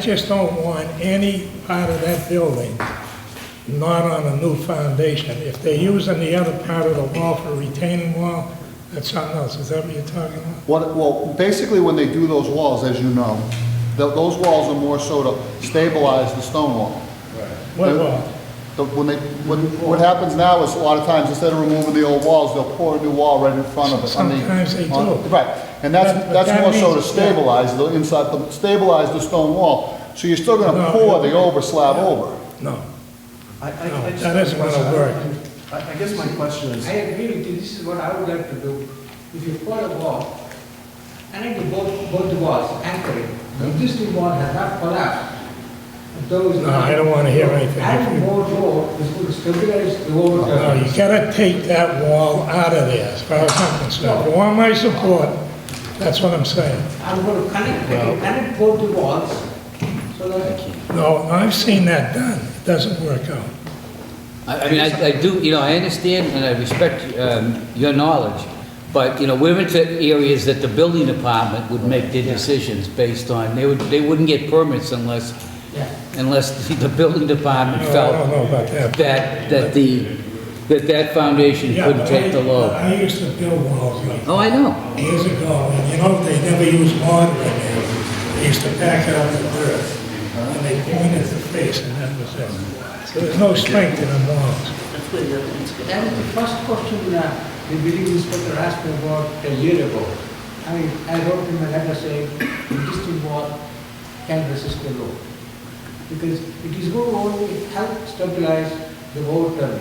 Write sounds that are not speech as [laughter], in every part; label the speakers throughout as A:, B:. A: I just don't want any part of that building not on a new foundation. If they're using the other part of the wall for retaining wall, that's something else. Is that what you're talking about?
B: What, well, basically, when they do those walls, as you know, th those walls are more so to stabilize the stone wall.
A: What wall?
B: The- When they, what, what happens now is a lot of times, instead of removing the old walls, they'll pour a new wall right in front of it. on the-
A: Sometimes they
B: on-
A: do.
B: Right, and that's,
A: But- but
B: that's
A: that
B: more so to
A: means- yeah.
B: stabilize the inside, the- stabilize the stone wall. So you're still
A: No,
B: gonna pour the
A: yeah.
B: over slab over.
A: No.
C: I, I,
A: No,
C: I just.
A: that isn't gonna
C: I-
A: work.
C: I, I guess my question is,
D: I agree with you, this is what I would like to do. If you pour a wall, I need to both, both the walls anchor it. The existing wall has not collapsed. Those.
A: No, I don't wanna hear anything. Oh,
D: Adding more wall is going to stabilize the whole.
A: No, you gotta take that wall out of there, as far as I'm concerned. If you want my support, that's what I'm saying.
D: I'm going to connect, I can connect both the walls, so that
A: No, I've seen that done. It doesn't work out.
E: I I mean, I I do, you know, I understand and I respect um, your knowledge, but, you know, we're into areas that the building department would make their decisions based on, they would, they wouldn't get permits unless, unless [laughs] the building department
A: No, I don't
E: felt
A: know about that.
E: that, that the, that that foundation
A: Yeah,
E: couldn't
A: but
E: take the
A: I-
E: load.
A: I used to build walls like
E: Oh, I know.
A: years ago, and you know, they never used mortar in there. They used to pack out the dirt, and they pointed the face, and that was it. So there's no strength in the walls.
D: That is the first question uh, the building inspector asked me about a year ago. I mean, I wrote him a letter saying, existing wall can resist the load. Because it is going to only help stabilize the overturn.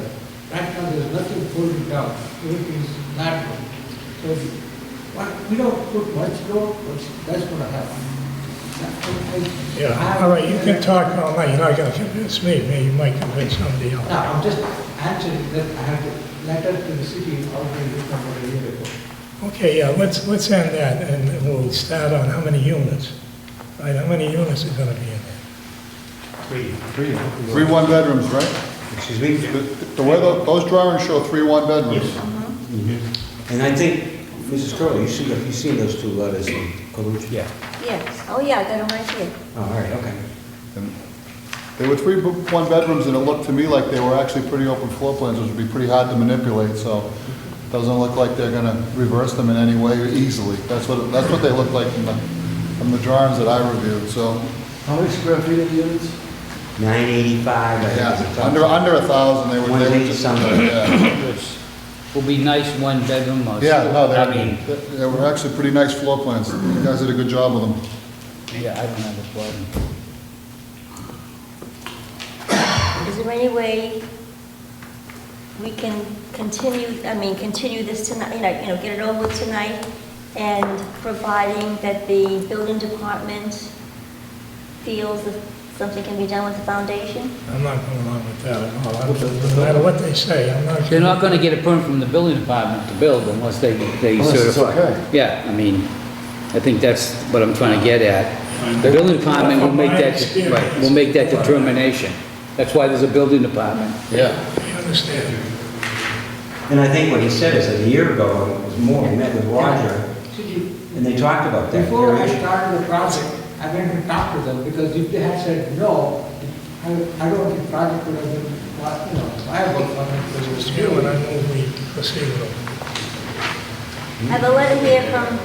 D: Right now, there's nothing holding down, everything is natural. So, what, we don't put much load, but that's going to happen. That's what I-
A: Yeah, all right, you can talk all night, you're not gonna convince me, maybe you might convince somebody else.
D: no, I'm just answering that I had a letter to the city already from a year ago.
A: Okay, yeah, let's, let's end that, and we'll start on how many units. Right, how many units are gonna be in there?
F: Three. Three.
B: Three one-bedrooms, right?
F: Excuse me?
B: The way tho- those drawings show three one-bedrooms.
F: And I think, Mrs. Curley, you see, you've seen those two letters in Calucci? Yeah.
G: Yes, oh yeah, I got them right here.
F: Oh, all right, okay.
B: They were three bo- one-bedrooms, and it looked to me like they were actually pretty open floor plans, which would be pretty hard to manipulate, so doesn't look like they're gonna reverse them in any way easily. That's what, that's what they look like from the, from the drawings that I reviewed, so,
C: how many square feet of units?
F: Nine eighty-five, I
B: yeah,
F: think.
B: under, under a thousand, they were, they were
F: 180
B: just...
F: something.
B: Yeah,
E: Would be nice one bedroom or.
B: Yeah, no,
E: I mean,
B: they, they were actually pretty nice floor plans. You guys did a good job with them.
E: yeah, I don't have a problem.
G: Is there any way we can continue, I mean, continue this tonight, you know, you know, get it over with tonight? And providing that the building department feels that something can be done with the foundation?
A: I'm not going along with that at all, I don't- no matter what they say, I'm not.
E: They're not gonna get a permit from the building department to build unless they, they
C: Unless it's
E: certify.
C: okay.
E: Yeah, I mean, I think that's what I'm trying to get at. The building department will make that, right, will make that determination. That's why there's a building department.
B: Yeah.
A: I understand.
F: And I think what he said is that a year ago, it was more, he met with Roger,
D: See,
F: and they talked about that.
D: before I
F: very issue.
D: started the project, I went and talked to them, because if they had said no, I, I don't think project would have been, you know, viable for me. to
A: Mr.
D: pursue.
A: Chairman, I move we proceed with
G: I have a letter here from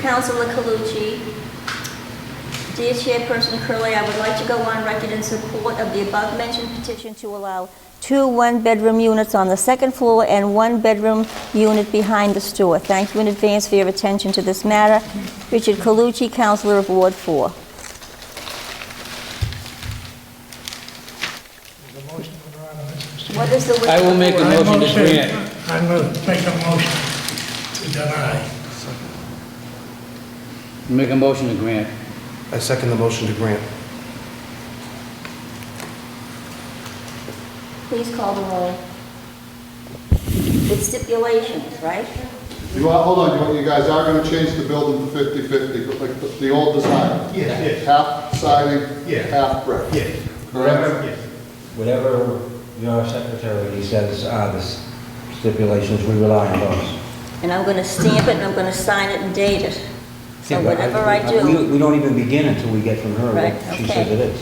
G: Councilor Calucci. Dear Chairperson Curley, I would like to go on record in support of the above-mentioned petition to allow two one-bedroom units on the second floor and one bedroom unit behind the store. Thank you in advance for your attention to this matter. Richard Calucci, Councilor of Ward 4.
A: the motion to go on, Mr.
G: What is the wish of the
E: I will make a
G: board?
E: motion to
A: Motion.
E: grant.
A: I'm going to make a motion to deny.
E: Make a motion to grant.
C: I second the motion to grant.
G: Please call the roll. With stipulations, right?
B: You are, hold on, you- you guys are gonna change the building to fifty-fifty, like the, the old design?
F: Yes,
B: Half siding,
F: Yeah.
B: half brick.
F: yes.
B: Correct?
F: Whatever your secretary says are the s- stipulations, we rely on those.
G: And I'm going to stamp it, and I'm going to sign it and date it. So whatever I do.
F: We, we don't even begin until we get from her what
G: Right,
F: she
G: okay.
F: says it is.